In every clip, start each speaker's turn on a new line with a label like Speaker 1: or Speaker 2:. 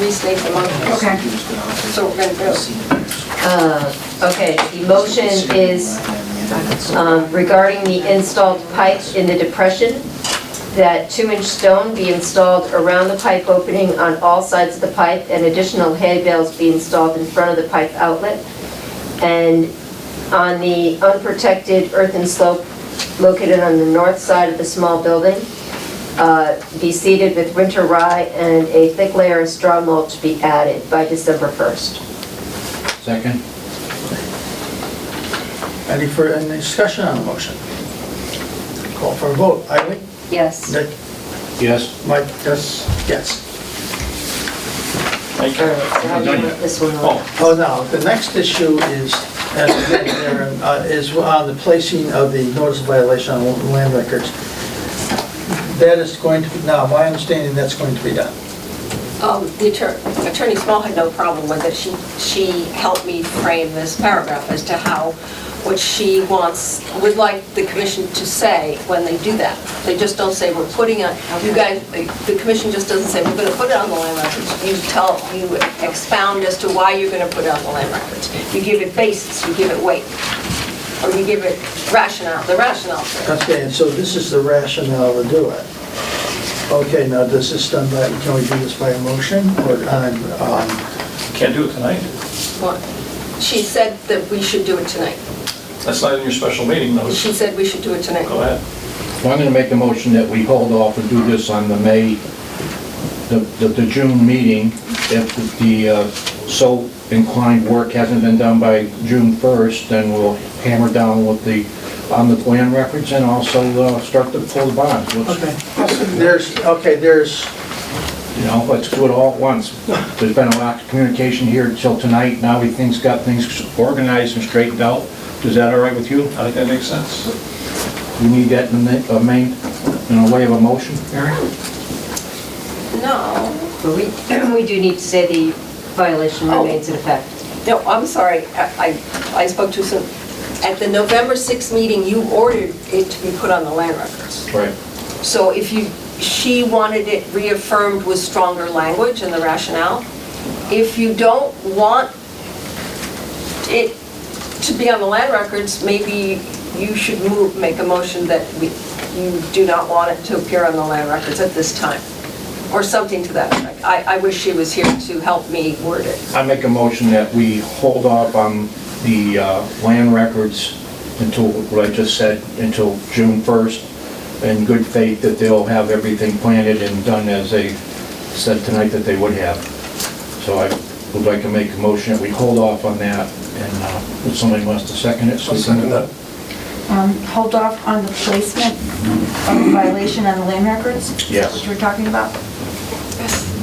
Speaker 1: restate the motion.
Speaker 2: Okay.
Speaker 1: So we're gonna go.
Speaker 3: Uh, Okay, the motion is um, regarding the installed pipe in the depression, that two-inch stone be installed around the pipe opening on all sides of the pipe, and additional hay bales be installed in front of the pipe outlet. And on the unprotected earthen slope located on the north side of the small building, uh, be seeded with winter rye and a thick layer of straw mulch be added by December 1st.
Speaker 4: Second?
Speaker 3: uh,
Speaker 5: Any further, any discussion on the motion? Call for a vote. Eileen?
Speaker 3: Yes.
Speaker 5: Dick?
Speaker 4: Yes.
Speaker 5: Mike? Yes. Yes.
Speaker 3: All right, so how do you want this one on?
Speaker 5: Oh, now, the next issue is, as we get there, uh, is on the placing of the notice of violation on land records. That is going to, be now, my understanding, that's going to be done.
Speaker 1: Um, The attorney, Attorney Small had no problem with it. She, she helped me frame this paragraph as to how, what she wants, would like the commission to say when they do that. They just don't say, we're putting on, you guys, the commission just doesn't say, we're going to put it on the land records. You tell, you expound as to why you're going to put it on the land records. You give it basis, you give it weight, or you give it rationale, the rationale for it.
Speaker 5: Okay, and so this is the rationale to do it. Okay, now, does this done by, can we do this by a motion or on, um,
Speaker 6: Can't do it tonight.
Speaker 1: What? She said that we should do it tonight.
Speaker 6: That's not in your special meeting notice.
Speaker 1: She said we should do it tonight.
Speaker 6: Go ahead.
Speaker 4: Well, I'm gonna make a motion that we hold off and do this on the May, the, the- the June meeting. If the uh, so inclined work hasn't been done by June 1st, then we'll hammer down with the, on the plan records and also uh, start to pull the bonds. Let's-
Speaker 5: okay, there's, okay, there's,
Speaker 4: You know, let's do it all at once. There's been a lot of communication here until tonight. Now we things got things organized and straightened out. Is that all right with you?
Speaker 6: I think that makes sense.
Speaker 4: We need that in the, a main, in a way of a motion, Mary?
Speaker 1: No.
Speaker 3: But we, we do need to say the violation remains in effect.
Speaker 1: No, I'm sorry, I, I I spoke too soon. At the November 6th meeting, you ordered it to be put on the land records.
Speaker 4: Right.
Speaker 1: So if you, she wanted it reaffirmed with stronger language and the rationale. If you don't want it to be on the land records, maybe you should move, make a motion that we, you do not want it to appear on the land records at this time, or something to that effect. I, I wish she was here to help me word it.
Speaker 4: I make a motion that we hold off on the uh, land records until, what I just said, until June 1st, in good faith that they'll have everything planted and done as they said tonight that they would have. So I would like to make a motion that we hold off on that, and uh, if somebody wants to second it, so we can...
Speaker 2: Um, Hold off on the placement of violation on the land records?
Speaker 4: Yes.
Speaker 2: Which we're talking about?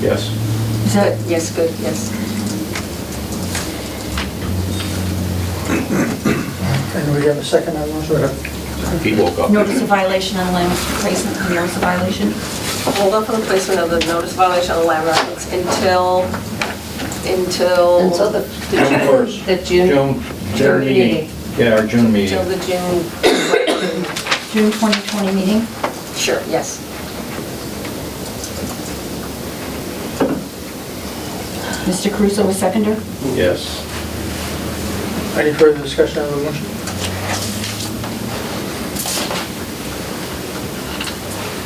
Speaker 4: Yes.
Speaker 2: Is that,
Speaker 1: Yes, good, yes.
Speaker 5: and we have a second on those, or?
Speaker 4: He woke up.
Speaker 2: notice of violation on the land placement, and notice of violation?
Speaker 1: hold off on the placement of the notice violation on the land records until, until...
Speaker 3: Until the-
Speaker 4: June
Speaker 1: Oh. June-
Speaker 4: 1st.
Speaker 3: The June,
Speaker 4: June
Speaker 3: June
Speaker 4: meeting.
Speaker 3: meeting.
Speaker 4: Yeah, our June meeting.
Speaker 1: Until the June,
Speaker 2: June 2020 meeting?
Speaker 1: sure, yes.
Speaker 2: Mr. Caruso was seconder?
Speaker 4: Yes.
Speaker 5: Any further discussion on the motion?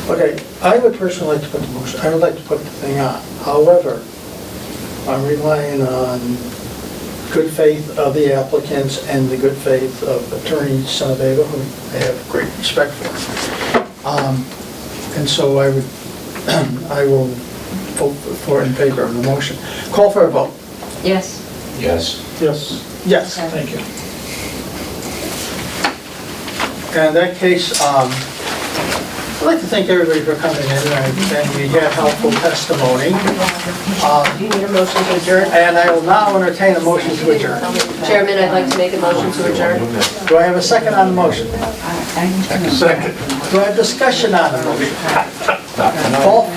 Speaker 5: Okay, I would personally like to put the motion, I would like to put the thing on. However, I'm relying on good faith of the applicants and the good faith of Attorney Sonabego, who I have great respect for. Um, And so I would, I will vote for in favor of the motion. Call for a vote.
Speaker 3: Yes.
Speaker 4: Yes.
Speaker 5: Yes. Yes.
Speaker 6: Thank you.
Speaker 5: And in that case, um, I'd like to thank everybody for coming in, and and we had helpful testimony. Um,
Speaker 3: Do you need a motion to adjourn?
Speaker 5: And I will now entertain a motion to adjourn.
Speaker 3: Chairman, I'd like to make a motion to adjourn.
Speaker 5: Do I have a second on the motion? Do I have discussion on the motion? All,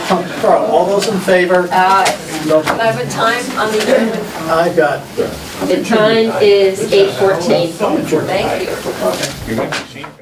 Speaker 5: all those in favor?
Speaker 1: Uh,
Speaker 5: No.
Speaker 1: Can I have a time on the adjournment?
Speaker 5: I got,
Speaker 3: The time is 8:14.
Speaker 1: Thank you.
Speaker 4: You might be seen.